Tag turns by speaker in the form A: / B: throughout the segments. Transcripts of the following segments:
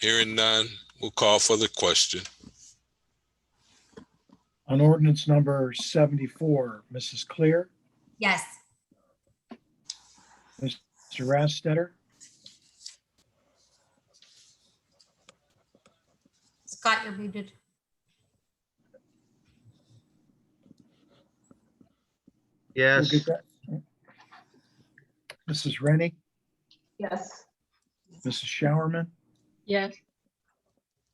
A: Hearing none, we'll call for the question.
B: On ordinance number 74, Mrs. Clear,
C: Yes.
B: Mr. Rastetter,
C: Scott, you're muted.
B: we'll
D: Yes,
B: get that. Mrs. Rennie,
E: Yes.
B: Mrs. Showerman,
E: Yes.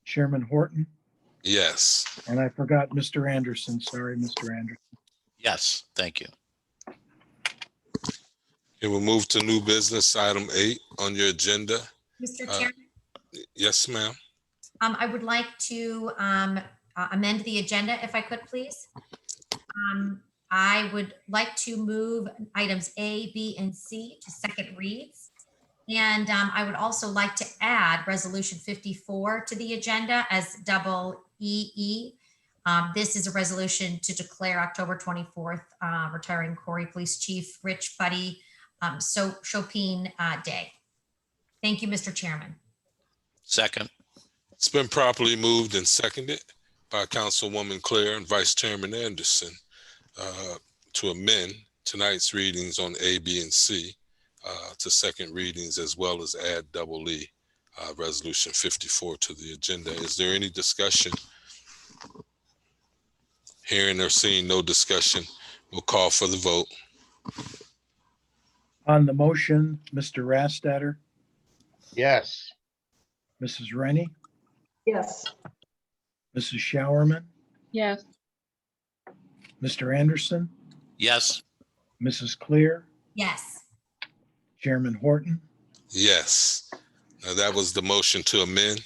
B: Chairman Horton,
A: Yes,
B: and I forgot Mr. Anderson. Sorry, Mr. Anderson.
F: Yes, thank you.
A: and we'll move to new business item eight on your agenda.
C: Mr.
A: Uh,
C: Chairman,
A: Yes, ma'am.
C: um, I would like to, um, uh, amend the agenda if I could, please. Um, I would like to move items A, B, and C to second reads. And, um, I would also like to add resolution fifty-four to the agenda as double E E. Um, this is a resolution to declare October twenty-fourth, uh, retiring Corey Police Chief Rich Buddy, um, so Chopin, uh, Day. Thank you, Mr. Chairman.
F: Second,
A: It's been properly moved and seconded by Councilwoman Claire and Vice Chairman Anderson uh, to amend tonight's readings on A, B, and C uh, to second readings as well as add double E, uh, Resolution 54 to the agenda. Is there any discussion? Hearing or seeing no discussion, we'll call for the vote.
B: On the motion, Mr. Rastetter,
D: yes,
B: Mrs. Rennie,
E: Yes.
B: Mrs. Showerman,
E: Yes.
B: Mr. Anderson,
F: yes,
B: Mrs. Clear,
C: Yes.
B: Chairman Horton,
A: Yes. Now, that was the motion to amend.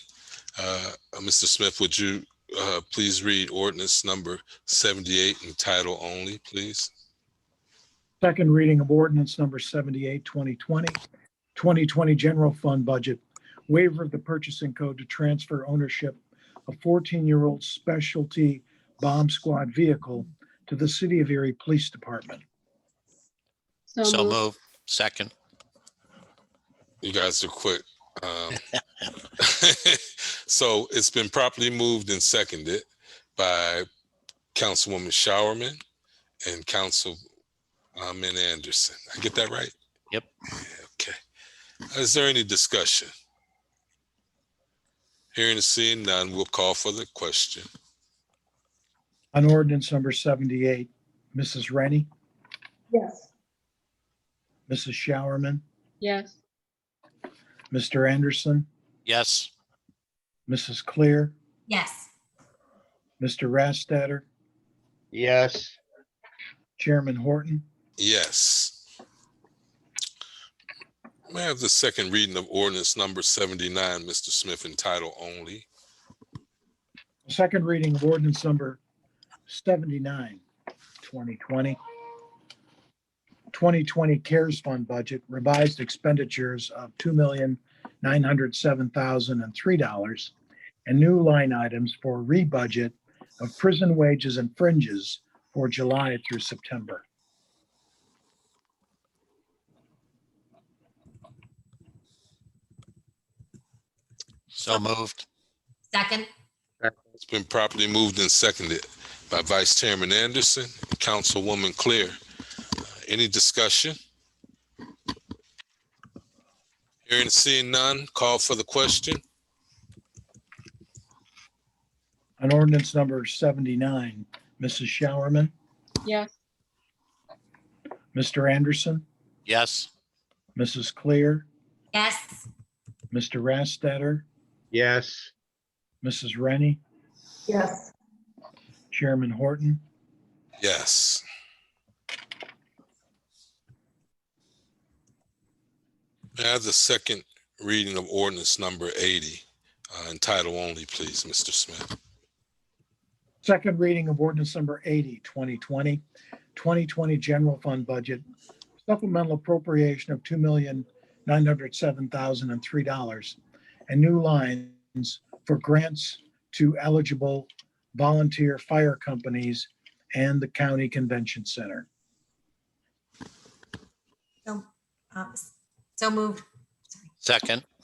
A: Uh, Mr. Smith, would you uh, please read ordinance number 78 in title only, please?
B: Second reading of ordinance number 78, 2020, 2020 general fund budget, waiver of the purchasing code to transfer ownership of 14-year-old specialty bomb squad vehicle to the City of Erie Police Department.
F: so move. Second,
A: You guys are quick. Um, So it's been properly moved and seconded by Councilwoman Showerman and Councilman Anderson. I get that right?
F: Yep.
A: Okay. Uh, Is there any discussion? Hearing and seeing none, we'll call for the question.
B: On ordinance number 78, Mrs. Rennie,
E: Yes.
B: Mrs. Showerman,
E: Yes.
B: Mr. Anderson,
F: yes,
B: Mrs. Clear,
C: Yes.
B: Mr. Rastetter,
D: yes,
B: Chairman Horton,
A: Yes. May I have the second reading of ordinance number seventy-nine, Mr. Smith, in title only?
B: Second reading of ordinance number 79, 2020. 2020 CARES Fund Budget revised expenditures of $2,907,003 and new line items for rebudget of prison wages and fringes for July through September.
F: so moved.
C: Second?
A: It's been properly moved and seconded by Vice Chairman Anderson, and Councilwoman Clear. Uh, Any discussion? Hearing and seeing none, call for the question.
B: On ordinance number 79, Mrs. Showerman,
E: Yes.
B: Mr. Anderson,
F: Yes,
B: Mrs. Clear,
C: Yes.
B: Mr. Rastetter,
D: yes,
B: Mrs. Rennie,
E: Yes.
B: Chairman Horton,
A: Yes. May I have the second reading of ordinance number eighty, uh, in title only, please, Mr. Smith?
B: Second reading of ordinance number 80, 2020, 2020 general fund budget, supplemental appropriation of $2,907,003 and new lines for grants to eligible volunteer fire companies and the county convention center.
C: So, um, so moved.
F: second,